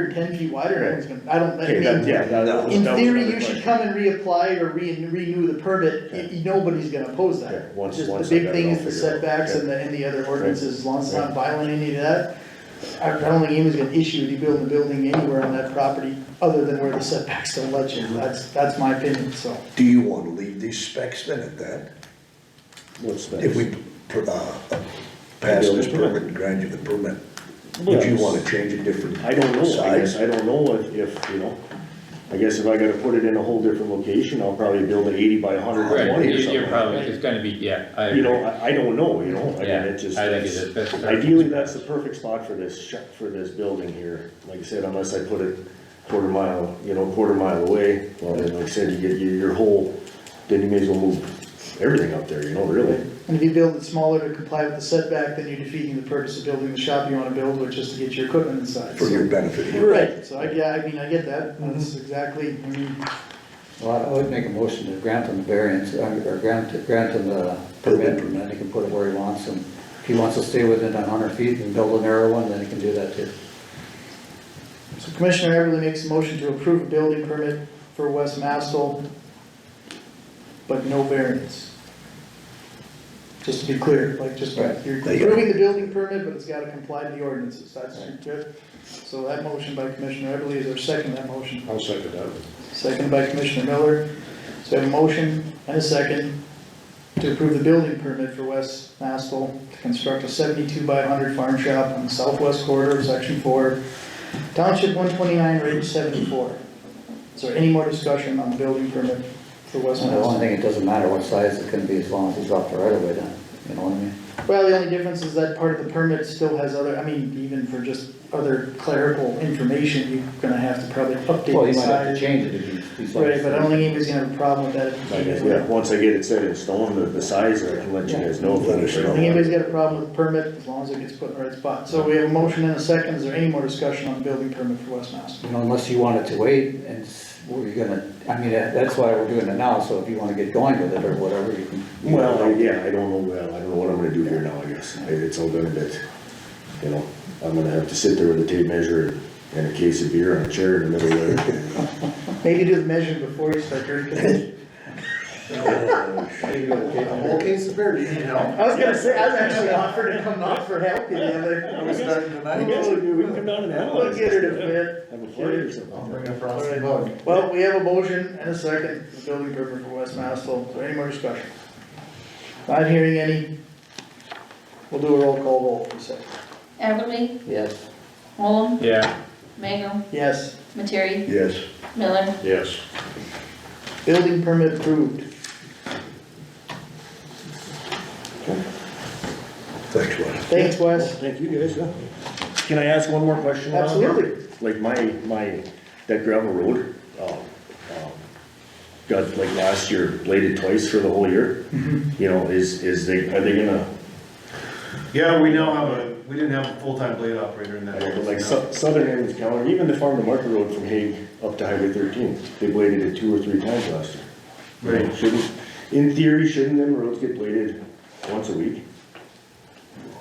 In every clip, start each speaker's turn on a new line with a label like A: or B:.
A: or ten feet wide or it's gonna, I don't, I
B: Okay, that,
A: mean,
B: yeah, that- that was.
A: in
B: that was
A: theory,
B: another
A: you should
B: question.
A: come and reapply or re- renew the permit,
B: Okay.
A: Y- nobody's gonna oppose
B: Okay,
A: that.
B: once-
A: Just
B: once I
A: the big
B: got it
A: thing
B: all
A: is the
B: figured out,
A: setbacks
B: okay.
A: and the, and the other ordinances, as long as it's not violating any of that. I I don't think anyone's gonna issue you building a building anywhere on that property, other than where the setbacks don't let you, that's, that's my opinion, so.
C: Do you wanna leave these specs then at that?
B: What's that?
C: If we, per- uh, pass this permit and grant you the permit, would you wanna change a different
B: I don't know, I guess,
C: size?
B: I don't know if, if, you know, I guess if I gotta put it in a whole different location, I'll probably build an eighty by a hundred by
D: Right,
B: twenty or
D: you- you're
B: something.
D: probably, it's gonna be, yeah,
B: You
D: I agree.
B: know, I, I don't know, you know, I mean,
D: Yeah,
B: it just.
D: I think it is, that's-
B: Ideally, that's the perfect spot for this, sh- for this building here, like I said, unless I put it quarter mile, you know, quarter mile away. Well, then, like I said, you get your, your whole, then you may as well move everything up there, you know, really.
A: And if you build it smaller to comply with the setback, then you're defeating the purpose of building the shop you wanna build, which is to get your equipment inside.
C: For
A: so.
C: your benefit
B: Oh,
C: here.
A: Right, so I, yeah, I mean, I get that,
B: Mm-hmm.
A: that's exactly, I mean,
E: Well, I would make a motion to grant him the variance, uh, or grant, grant him the permit, and then he can put it where he wants, and if he wants to stay within a hundred feet and build a narrow one, then he can do that too.
A: so Commissioner Everly makes a motion to approve a building permit for West Mastel, but no variance. Just to be clear, like, just,
E: Right.
A: you're approving the building permit, but it's gotta comply to the ordinances, that's good. So that motion by Commissioner Everly is our second to that motion.
B: I'll second that.
A: Second by Commissioner Miller. So we have a motion and a second to approve the building permit for West Mastel to construct a seventy-two by hundred farm shop on the southwest corridor of section four, township one twenty-nine, range seventy-four. Is there any more discussion on the building permit for West
E: And the only
A: Mastel?
E: thing, it doesn't matter what size it can be, as long as it's off the right of way then, you know what I mean?
A: Well, the only difference is that part of the permit still has other, I mean, even for just other clerical information, you're gonna have to probably
E: Well,
A: update
E: he
A: the
E: might have
A: size.
E: to change it if he's, he's.
A: Right, but I don't think anybody's gonna have a problem with that. if he does that.
B: Yeah, once I get it set in stone, the, the size, I can let you guys know. if
C: Let us
B: I'm-
C: know.
A: I think anybody's got a problem with permit, as long as it gets put in the right spot. So we have a motion and a second, is there any more discussion on the building permit for West Mass?
E: You know, unless you wanted to wait, and s- we're gonna, I mean, that- that's why we're doing it now, so if you wanna get going with it or whatever, you can.
B: Well, I- yeah, I don't know, well, I don't know what I'm gonna do here now, I guess, I- it's all gonna be, you know, I'm gonna have to sit there with a tape measure and a case of beer on a chair in the middle of it.
A: Maybe do the measure before you start drinking.
F: case of beer, do you need help?
A: I was gonna say, I was actually offering to come out for help you the
F: I
A: other.
F: was starting tonight.
B: we can come down and
A: Look at it a bit.
B: Have a party or something.
F: I'll bring a frosty mug.
A: Well, we have a motion and a second, for the building permit for West Mass, so is there any more discussion? Not hearing any. We'll do a roll call roll for a second.
G: Everly,
E: Yes.
G: Holm,
D: Yeah,
G: Magel,
A: Yes,
G: Materi,
C: Yes,
G: Miller.
B: Yes.
A: building permit approved.
C: thanks, Wes.
A: Thanks, Wes.
B: Thank you guys, yeah. Can I ask one more question? Ron?
A: Absolutely.
B: Like my, my, that gravel road, um, um, got like last year bladed twice for the whole year. You know, is, is they, are they gonna,
F: Yeah, we now have a, we didn't have a full-time blade operator in
B: I
F: that.
B: don't know,
F: office
B: like
F: now.
B: sou- southern end of town, even the farm to market road from Hague up to Highway thirteen, they bladed it two or three times last year. You know,
F: Right.
B: Shouldn't, in theory, shouldn't them roads get bladed once a week?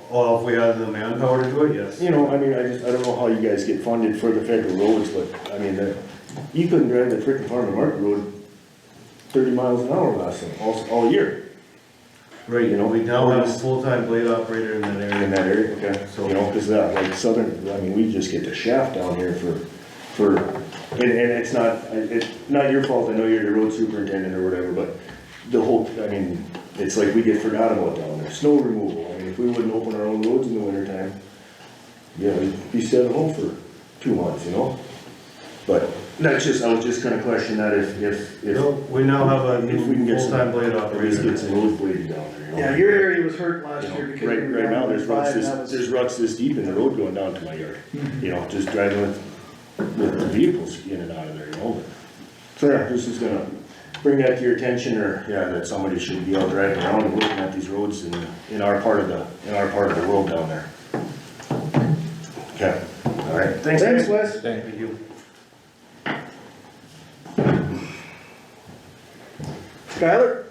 F: Well, if we had the manpower to do it, yes.
B: You know, I mean, I just, I don't know how you guys get funded for the federal roads, but, I mean, the, you couldn't drive the frickin' farm to market road thirty miles an hour last time, all, all year
F: Right,
B: you know,
F: we now have a
B: always-
F: full-time blade operator in that
B: in
F: area.
B: that area, okay? So, you know, cause that, like southern, I mean, we just get the shaft down here for, for, and, and it's not, it's not your fault, I know you're the road superintendent or whatever, but the whole, I mean, it's like we get forgotten about down there, snow removal, I mean, if we wouldn't open our own roads in the wintertime, yeah, we'd be set at home for two months, you know? But that's just, I was just gonna question that if, if, if.
F: No, We now have a
B: If we can
F: new
B: get some-
F: full-time blade
B: At least
F: operator.
B: get some road bladed down there, you know?
A: Yeah, your area was hurt
B: You
A: last
B: know,
A: year because. we
B: Right,
A: were
B: right now,
A: down
B: there's
A: five,
B: ruts
A: and
B: this,
A: that was-
B: there's ruts this deep in the road going down to my yard,
A: Hmm.
B: you know, just driving with, with the vehicles in and out of there, you know, but. So, yeah, this is gonna bring that to your attention, or, yeah, that somebody should be out driving around and looking at these roads in, in our part of the, in our part of the world down there. Okay, all right, thanks.
A: Thanks,
B: guys.
A: Wes.
D: thank you.
A: Skylar?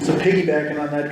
A: So piggybacking on that